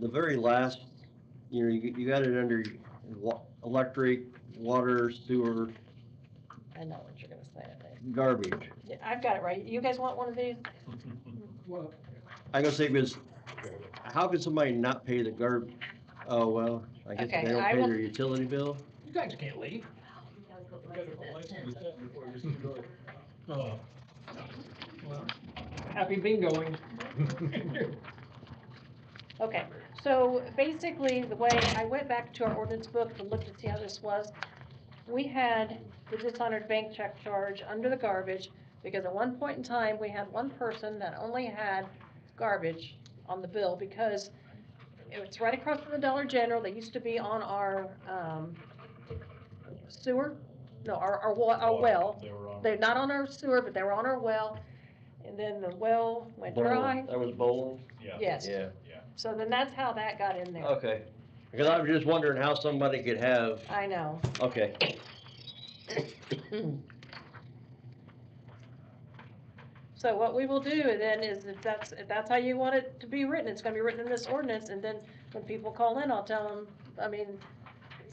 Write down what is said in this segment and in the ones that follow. the very last, you know, you, you got it under wa- electric, water, sewer, I know what you're gonna say, I think. garbage. Yeah, I've got it right. You guys want one of these? Well, I gotta say, because how could somebody not pay the garb, oh, well, I guess Okay, they don't I pay will- their utility bill? you guys can't leave. Oh. Well, Happy bingoing. Okay, so basically, the way, I went back to our ordinance book to look to see how this was. We had the dishonored bank check charge under the garbage, because at one point in time, we had one person that only had garbage on the bill, because it's right across from the Dollar General, they used to be on our, um, sewer, no, our, our wa- our well. They were on. They're not on our sewer, but they were on our well, and then the well went dry, That was bowling? uh, Yeah, yes. So then that's how that got in there. Okay. Because I was just wondering how somebody could have, I know. okay. So what we will do then is if that's, if that's how you want it to be written, it's gonna be written in this ordinance, and then when people call in, I'll tell them, I mean,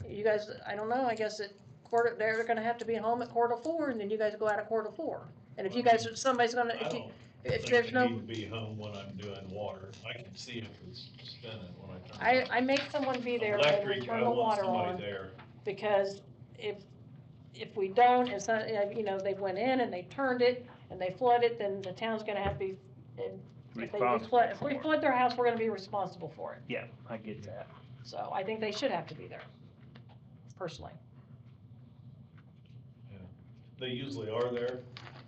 you guys, I don't know, I guess at quarter, they're gonna have to be home at quarter four, and then you guys go out at quarter four. And if you guys, somebody's gonna, I if you, don't if think there's they no, need to Be home when I'm doing water. I can see if it's spinning when I turn. I, it on. I make someone be there when we Electric, I turn the want water somebody on. there. because if, if we don't, and some, uh, you know, they went in and they turned it and they flood it, then the town's gonna have to be, and if they do flood, if we flood their house, we're gonna be responsible for it. Yeah, I get that. So I think they should have to be there, personally. They usually are there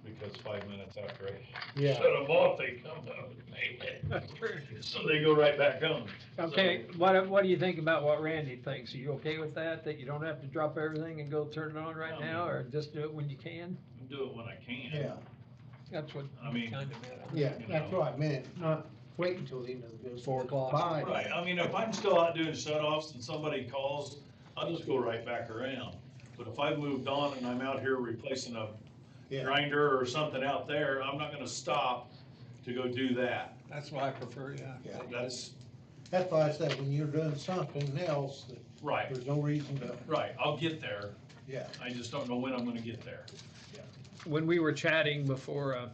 because five minutes after I Yeah. shut them off, they come out. So they go right back home. Okay, what, what do you think about what Randy thinks? Are you okay with that, that you don't have to drop everything and go turn it on Um, right now, or just do it when you can? Do it when I can. Yeah, That's what I mean. kind of meant. yeah, that's what I meant, not wait until the end of the bill. Four o'clock. Right, I mean, if I'm still out doing shut-offs and somebody calls, I'll just go right back around. But if I moved on and I'm out here replacing a Yeah, grinder or something out there, I'm not gonna stop to go do that. That's what I prefer, yeah. yeah, That's, that's why I said, when you're doing something else, that right, there's no reason to, right, I'll get there, yeah. I just don't know when I'm gonna get there. when we were chatting before, uh,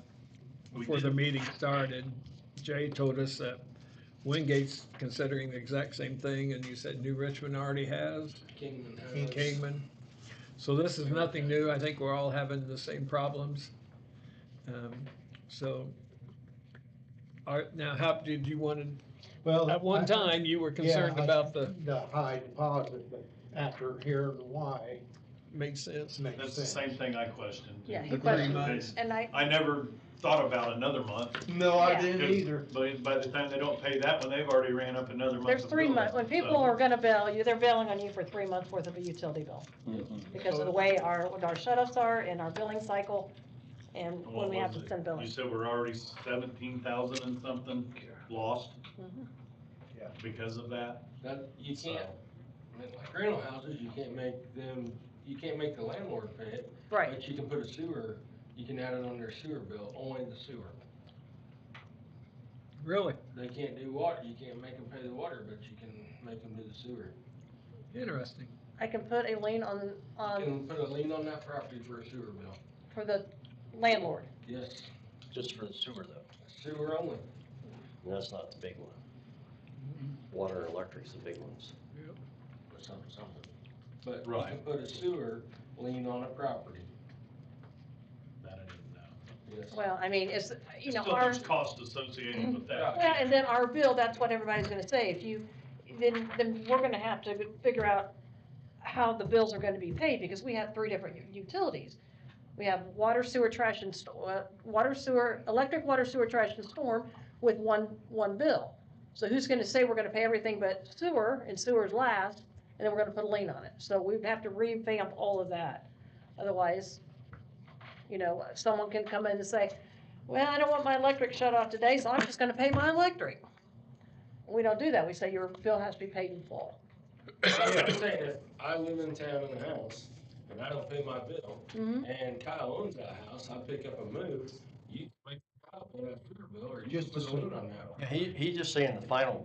We before the did- meeting started, Jay told us that Wingate's considering the exact same thing, and you said New Richmond already has, and Kingman. So this is nothing new, I think we're all having the same problems. Um, So, are, now, how did you want to, Well, at one I- time, you were concerned Yeah, I- about the, The high deposit, but after hearing why, makes sense? it makes That's the sense. same thing I questioned. Yeah, he Agreed. questioned, Because and I, I never thought about another month. No, I Yeah. didn't 'cause either, By, by the time they don't pay that one, they've already ran up another month. there's of three billing, months, when people so- are gonna bill you, they're billing on you for three months worth of a utility bill. Mm-hmm. Because of the way our, what our shut-offs are and our billing cycle, and And when what we have was to it? send billing. You said we're already seventeen thousand and something lost? Mhm. Yeah. Because of that? That, you So- can't, I mean, like rental houses, you can't make them, you can't make the landlord pay it. Right, But you can put a sewer, you can add it on their sewer bill, only the sewer. Really? They can't do water, you can't make them pay the water, but you can make them do the sewer. Interesting. I can put a lien on, You on, can put a lien on that property for a sewer bill. for the landlord. Yes, Just for the sewer though, sewer only. that's not the big one. Mm-hmm. Water, electric's the big ones. or something, something. But you can Right. put a sewer lien on a property, That I didn't know. yes. Well, I mean, it's, you know, Still, our, there's cost associated with that. well, and then our bill, that's what everybody's gonna say, if you, then, then we're gonna have to figure out how the bills are gonna be paid, because we have three different u- utilities. We have water, sewer, trash, and sto- uh, water, sewer, electric, water, sewer, trash, and storm with one, one bill. So who's gonna say we're gonna pay everything but sewer, and sewer's last, and then we're gonna put a lien on it, so we'd have to revamp all of that. Otherwise, you know, someone can come in and say, well, I don't want my electric shut off today, so I'm just gonna pay my electric. We don't do that, we say your bill has to be paid in full. I'm not saying if I live in town in a house and I don't pay my bill, Mhm. and Kyle owns that house, I pick up and move, you make Kyle pay that sewer bill, or you Just put the a lien on that one. He, he's just saying the final